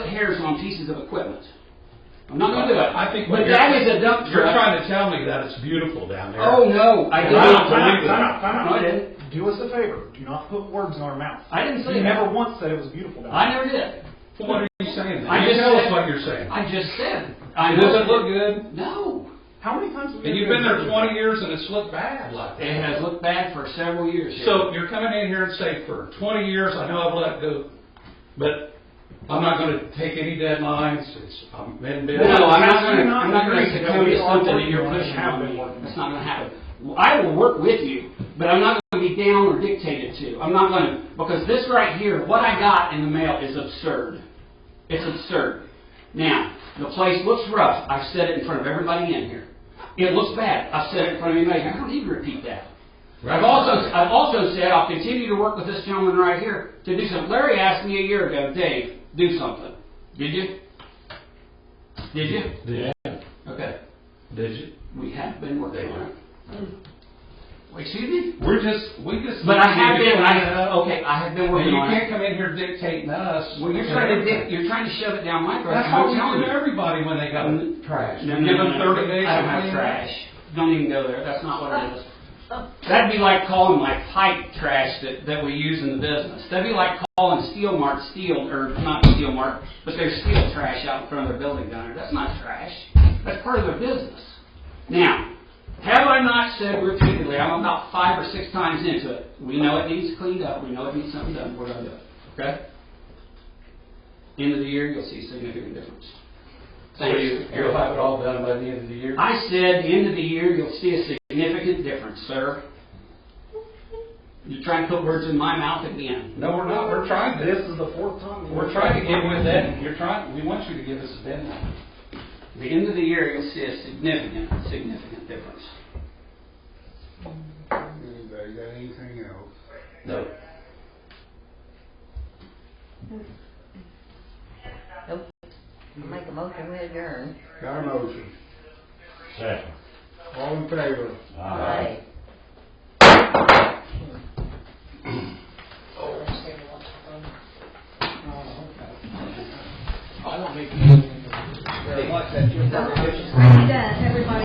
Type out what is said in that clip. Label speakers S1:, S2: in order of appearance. S1: repairs on pieces of equipment. I'm not gonna do it.
S2: I think what
S1: But
S2: you're-
S1: that is a dump
S2: You're
S1: truck.
S2: trying to tell me that it's beautiful down there.
S1: Oh, no, I
S2: And
S1: did
S2: I
S1: not.
S2: don't believe
S1: Time
S2: that.
S1: out, time out. No, I didn't.
S3: Do us a favor, do not put words in our mouth.
S1: I didn't say
S3: You
S1: that.
S3: never once said it was beautiful down
S1: I never did.
S2: Well, What are you saying?
S1: I
S2: then? You
S1: just
S2: tell us
S1: said-
S2: what you're saying.
S1: I just said. I
S2: It
S1: know-
S2: doesn't look good,
S1: No.
S3: there. How many times have we?
S2: and you've been there twenty years and it's looked bad like
S1: It
S2: that.
S1: has looked bad for several years. here.
S2: So you're coming in here and say, for twenty years, I know I've let go, but I'm not gonna take any deadlines, it's, I'm in bed.
S1: No, I'm not
S3: How do you
S1: gonna,
S3: not
S1: I'm not gonna
S3: agree that
S1: succumb
S3: we
S1: to
S3: are
S1: something that
S3: working
S1: you're
S3: on it?
S1: pushing
S3: Have
S1: on
S3: been
S1: me.
S3: working on
S1: That's not gonna happen. Well, I will work with you, but I'm not gonna be down or dictated to. I'm not gonna, because this right here, what I got in the mail is absurd. It's absurd. Now, the place looks rough. I've said it in front of everybody in here. It looks bad. I've said it in front of anybody. I don't need to repeat that. I've also, I've also said I'll continue to work with this gentleman right here to do something. Larry asked me a year ago, Dave, do something. Did you? Did you?
S2: Yeah,
S1: Okay.
S2: did you?
S1: We have been working on it. Well, Excuse me?
S2: We're just, we just.
S1: But I have been, I,
S2: And
S1: okay, I have been
S2: you
S1: working on
S2: can't
S1: it.
S2: come in here dictating us.
S1: Well, you're trying to, dig- you're trying to shove it down my throat.
S2: That's how we
S1: I'm telling
S2: do
S1: you. Mm-hmm.
S2: to everybody when they got trash.
S1: No,
S2: We
S1: no,
S2: give
S1: no,
S2: them
S1: no.
S2: thirty days.
S1: I
S2: to
S1: don't have
S2: clean it.
S1: trash. Don't even go there. That's not what it is. That'd be like calling my pipe trash that, that we use in the business. That'd be like calling Steel Mart steel, or not Steel Mart, but there's steel trash out in front of their building down there. That's not trash. That's part of their business. Now, have I not said repeatedly, I'm about five or six times into it, we know it needs cleaned up, we know it needs something done, we're gonna do it, okay? End of the year, you'll see significant difference.
S2: So you,
S1: Thanks.
S2: you'll have it all done by the end of the year?
S1: I said, the end of the year, you'll see a significant difference, sir. You're trying to put words in my mouth again.
S2: No, we're not, we're trying to,
S3: This is the fourth time.
S2: we're trying to get with that, you're trying, we want you to give us a deadline.
S1: The end of the year, you'll see a significant, significant difference.
S4: Anybody got anything else?
S2: No.
S5: Make a motion, we adjourn.
S4: Got a motion?
S6: Second.
S4: All in favor?
S5: Aye.
S3: I don't make. Like that.
S5: He does, everybody.